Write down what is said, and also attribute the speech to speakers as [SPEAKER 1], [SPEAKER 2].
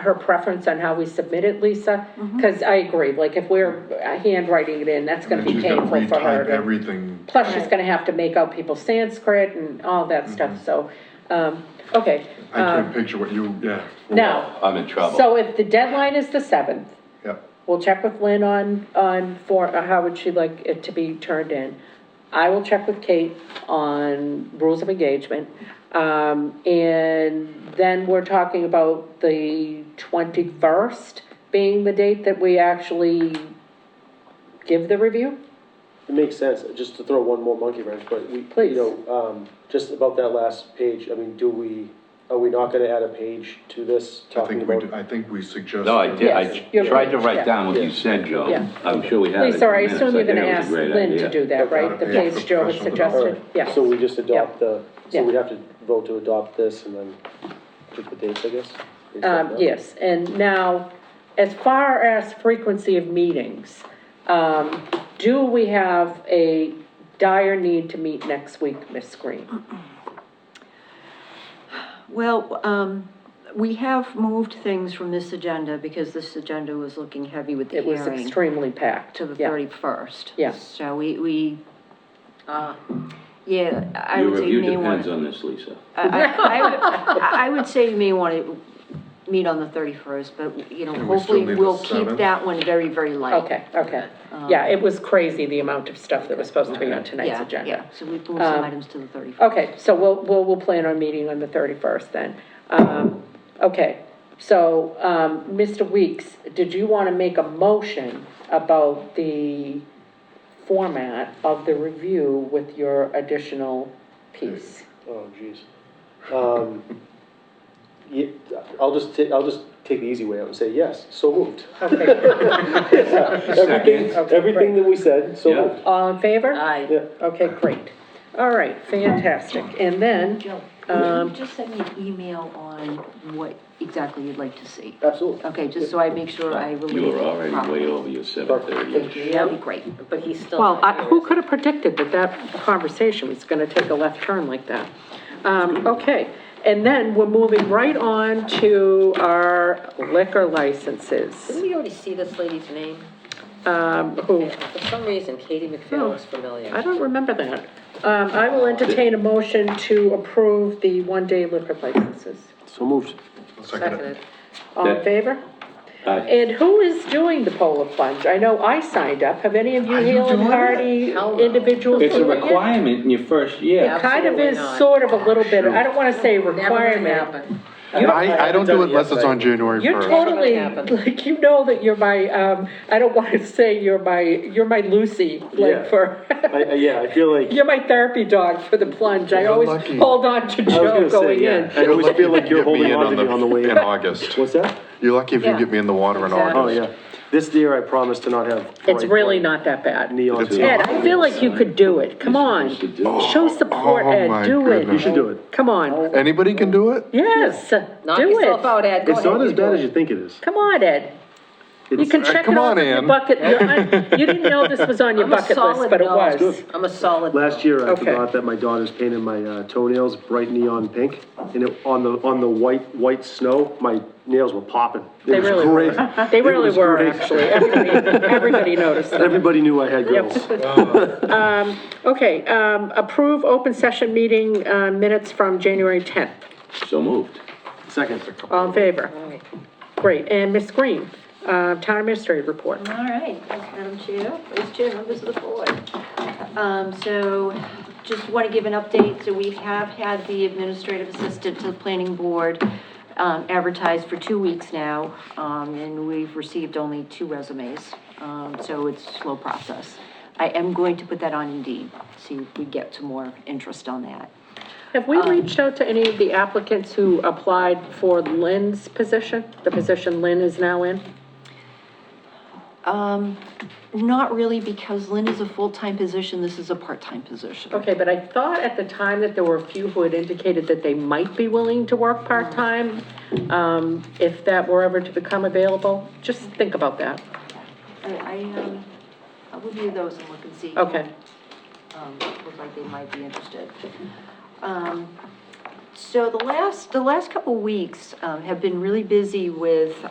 [SPEAKER 1] her preference on how we submit it, Lisa? Because I agree, like, if we're handwriting it in, that's gonna be
[SPEAKER 2] She's gotta
[SPEAKER 1] painful for her.
[SPEAKER 2] retype
[SPEAKER 1] to-
[SPEAKER 2] Everything.
[SPEAKER 1] Plus, she's gonna have to make out people's Sanskrit and all that stuff, so, um, okay.
[SPEAKER 2] I can't
[SPEAKER 1] um,
[SPEAKER 2] picture what you, yeah.
[SPEAKER 1] Now,
[SPEAKER 3] I'm in trouble.
[SPEAKER 1] so if the deadline is the seventh,
[SPEAKER 2] Yep.
[SPEAKER 1] We'll check with Lynn on, on for, uh, how would she like it to be turned in. I will check with Kate on rules of engagement. Um, and then we're talking about the twenty-first being the date that we actually give the review?
[SPEAKER 4] It makes sense, just to throw one more monkey wrench, but we,
[SPEAKER 1] Please.
[SPEAKER 4] you know, um, just about that last page, I mean, do we, are we not gonna add a page to this
[SPEAKER 2] I
[SPEAKER 4] talking
[SPEAKER 2] think we,
[SPEAKER 4] about?
[SPEAKER 2] do- I think we suggest.
[SPEAKER 3] No, I did,
[SPEAKER 1] Yes,
[SPEAKER 3] I
[SPEAKER 1] you're
[SPEAKER 3] tried to
[SPEAKER 1] right, yeah.
[SPEAKER 3] write down what you
[SPEAKER 4] Yeah.
[SPEAKER 3] said, Joe.
[SPEAKER 1] Yeah.
[SPEAKER 3] I'm sure we had it.
[SPEAKER 1] Lisa, I
[SPEAKER 3] in the
[SPEAKER 1] assume you're
[SPEAKER 3] minutes.
[SPEAKER 1] gonna
[SPEAKER 3] I
[SPEAKER 1] ask
[SPEAKER 3] think it was a great
[SPEAKER 1] Lynn to
[SPEAKER 3] idea.
[SPEAKER 1] do that, right? The
[SPEAKER 2] Yeah,
[SPEAKER 1] page Joe has
[SPEAKER 2] professional
[SPEAKER 4] All
[SPEAKER 1] suggested,
[SPEAKER 4] right,
[SPEAKER 1] yeah.
[SPEAKER 4] So we just adopt the,
[SPEAKER 1] Yeah.
[SPEAKER 4] so we have to vote to adopt this and then pick the dates, I guess? based on
[SPEAKER 1] Um,
[SPEAKER 4] that?
[SPEAKER 1] yes, and now, as far as frequency of meetings, um, do we have a dire need to meet next week, Miss Green?
[SPEAKER 5] Well, um, we have moved things from this agenda because this agenda was looking heavy with the
[SPEAKER 1] It was
[SPEAKER 5] hearing
[SPEAKER 1] extremely packed.
[SPEAKER 5] to the
[SPEAKER 1] yeah.
[SPEAKER 5] thirty-first.
[SPEAKER 1] Yeah.
[SPEAKER 5] So we, we, uh, yeah, I
[SPEAKER 3] Your
[SPEAKER 5] would say you
[SPEAKER 3] review
[SPEAKER 5] may want.
[SPEAKER 3] depends on this, Lisa.
[SPEAKER 5] I, I- I would- I, I would say you may want to meet on the thirty-first, but, you know,
[SPEAKER 2] we still
[SPEAKER 5] hopefully
[SPEAKER 2] need the
[SPEAKER 5] we'll keep
[SPEAKER 2] 7th?
[SPEAKER 5] that one very, very light.
[SPEAKER 1] Okay, okay. Yeah, it was crazy, the amount of stuff that was supposed to be on tonight's
[SPEAKER 5] Um, Yeah,
[SPEAKER 1] agenda. Um,
[SPEAKER 5] yeah, so we moved some items to the thirty-first.
[SPEAKER 1] Okay, so we'll, we'll, we'll plan on meeting on the 31st then. Um, okay, so, um, Mr. Weeks, did you want to make a motion about the format of the review with your additional piece?
[SPEAKER 4] Oh, jeez. Um, ye- I'll just, ta- I'll just take the easy way out and say, yes, so moved.
[SPEAKER 1] Okay,
[SPEAKER 4] Everything,
[SPEAKER 1] Okay,
[SPEAKER 4] everything that we said, so
[SPEAKER 3] Yeah.
[SPEAKER 4] moved.
[SPEAKER 1] all in favor?
[SPEAKER 5] Aye.
[SPEAKER 4] Yeah.
[SPEAKER 1] Okay, great. All right, fantastic. And then,
[SPEAKER 5] Joe,
[SPEAKER 1] Um,
[SPEAKER 5] would you just send me an email on what exactly you'd like to see?
[SPEAKER 4] Absolutely.
[SPEAKER 5] Okay, just so I make sure I relate
[SPEAKER 3] You were
[SPEAKER 5] it
[SPEAKER 3] already
[SPEAKER 5] properly.
[SPEAKER 3] way over your seven thirty.
[SPEAKER 5] That'd be great.
[SPEAKER 6] But he's still.
[SPEAKER 1] well, I- who could have predicted that that conversation was going to take a left turn like that? Um, okay, and then we're moving right on to our liquor licenses.
[SPEAKER 6] Didn't we already see this lady's name?
[SPEAKER 1] Um, who,
[SPEAKER 6] For some reason, Katie McPhail looks familiar.
[SPEAKER 1] Oh. I don't remember that. Um, I will entertain a motion to approve the one-day liquor licenses.
[SPEAKER 4] So moved.
[SPEAKER 2] Second it.
[SPEAKER 1] All in
[SPEAKER 3] That-
[SPEAKER 1] favor?
[SPEAKER 3] Aye.
[SPEAKER 1] And who is doing the polar plunge? I know I signed up. Have any of you Hale and Hardy
[SPEAKER 6] Hell no.
[SPEAKER 1] individuals?
[SPEAKER 3] It's a
[SPEAKER 1] doing it?
[SPEAKER 3] requirement in your first year.
[SPEAKER 6] Yeah.
[SPEAKER 1] Kind of is
[SPEAKER 6] Absolutely not.
[SPEAKER 1] sort of a little bit, I don't wanna say requirement.
[SPEAKER 6] happened.
[SPEAKER 2] I, I don't do it unless it's on January
[SPEAKER 1] You're
[SPEAKER 2] first.
[SPEAKER 1] totally,
[SPEAKER 6] happened.
[SPEAKER 1] like, you know that you're my, um, I don't wanna say you're my, you're my Lucy,
[SPEAKER 4] Yeah.
[SPEAKER 1] like for,
[SPEAKER 4] I, I, yeah, I feel like.
[SPEAKER 1] you're my therapy dog for the plunge. I
[SPEAKER 2] You're
[SPEAKER 1] always
[SPEAKER 2] lucky.
[SPEAKER 1] hold on to
[SPEAKER 4] I was
[SPEAKER 1] Joe
[SPEAKER 4] gonna say,
[SPEAKER 1] going
[SPEAKER 4] yeah.
[SPEAKER 1] in.
[SPEAKER 4] I always feel like you're holding on to me on the way.
[SPEAKER 2] In
[SPEAKER 4] in.
[SPEAKER 2] August.
[SPEAKER 4] What's that?
[SPEAKER 2] You're lucky if you
[SPEAKER 6] Yeah.
[SPEAKER 2] get me in the water in
[SPEAKER 6] Exactly.
[SPEAKER 2] August.
[SPEAKER 4] Oh, yeah. This year I promise to not have.
[SPEAKER 1] It's
[SPEAKER 4] bright
[SPEAKER 1] really
[SPEAKER 4] white
[SPEAKER 1] not that bad.
[SPEAKER 4] Neon.
[SPEAKER 2] It's
[SPEAKER 1] Ed, I feel like you could do it. Come on.
[SPEAKER 3] You should do it.
[SPEAKER 1] Show support,
[SPEAKER 2] Oh,
[SPEAKER 1] Ed.
[SPEAKER 2] my
[SPEAKER 1] Do it.
[SPEAKER 2] goodness. You should
[SPEAKER 4] do it.
[SPEAKER 1] Come on.
[SPEAKER 2] Anybody can do it?
[SPEAKER 1] Yes,
[SPEAKER 6] Oh. Knock
[SPEAKER 1] do
[SPEAKER 6] yourself
[SPEAKER 1] it.
[SPEAKER 6] out, Ed, go
[SPEAKER 4] It's not
[SPEAKER 6] ahead,
[SPEAKER 4] as
[SPEAKER 6] you do
[SPEAKER 4] bad as
[SPEAKER 6] it.
[SPEAKER 4] you think it is.
[SPEAKER 1] Come on, Ed. You
[SPEAKER 4] It's-
[SPEAKER 1] can check
[SPEAKER 2] come
[SPEAKER 1] it off
[SPEAKER 2] on,
[SPEAKER 1] of your
[SPEAKER 2] Ann.
[SPEAKER 1] bucket. You're on- You didn't know this was on your
[SPEAKER 6] I'm a
[SPEAKER 1] bucket list,
[SPEAKER 6] solid
[SPEAKER 1] but it
[SPEAKER 6] no.
[SPEAKER 1] was.
[SPEAKER 6] I'm a solid.
[SPEAKER 4] Last year, I
[SPEAKER 1] Okay.
[SPEAKER 4] forgot that my daughter's painted my uh, toenails bright neon pink, and it, on the, on the white, white snow, my nails were popping. It
[SPEAKER 1] They
[SPEAKER 4] was
[SPEAKER 1] really
[SPEAKER 4] great.
[SPEAKER 1] were. They really
[SPEAKER 4] was
[SPEAKER 1] were,
[SPEAKER 4] great.
[SPEAKER 1] actually. Everybody, everybody noticed that.
[SPEAKER 4] Everybody knew I had girls.
[SPEAKER 1] Okay, um, approve open session meeting, uh, minutes from January tenth.
[SPEAKER 3] So moved.
[SPEAKER 4] Second.
[SPEAKER 1] All in favor?
[SPEAKER 6] All right.
[SPEAKER 1] Great. And Ms. Green, uh, town administrator report.
[SPEAKER 5] All right, thanks, Madam Chair, Vice Chair, members of the board. Um, so, just want to give an update, so we have had the administrative assistant to the planning board um, advertised for two weeks now, um, and we've received only two resumes, um, so it's a slow process. I am going to put that on Indeed, see if we get some more interest on that.
[SPEAKER 1] Have we reached out to any of the applicants who applied for Lynn's position? The position Lynn is now in?
[SPEAKER 5] Not really, because Lynn is a full-time position, this is a part-time position.
[SPEAKER 1] Okay, but I thought at the time that there were a few who had indicated that they might be willing to work part-time, um, if that were ever to become available. Just think about that.
[SPEAKER 5] I, I, um, I'll review those and look and see.
[SPEAKER 1] Okay.
[SPEAKER 5] Um, look like they might be interested. Um, So the last, the last couple weeks um, have been really busy with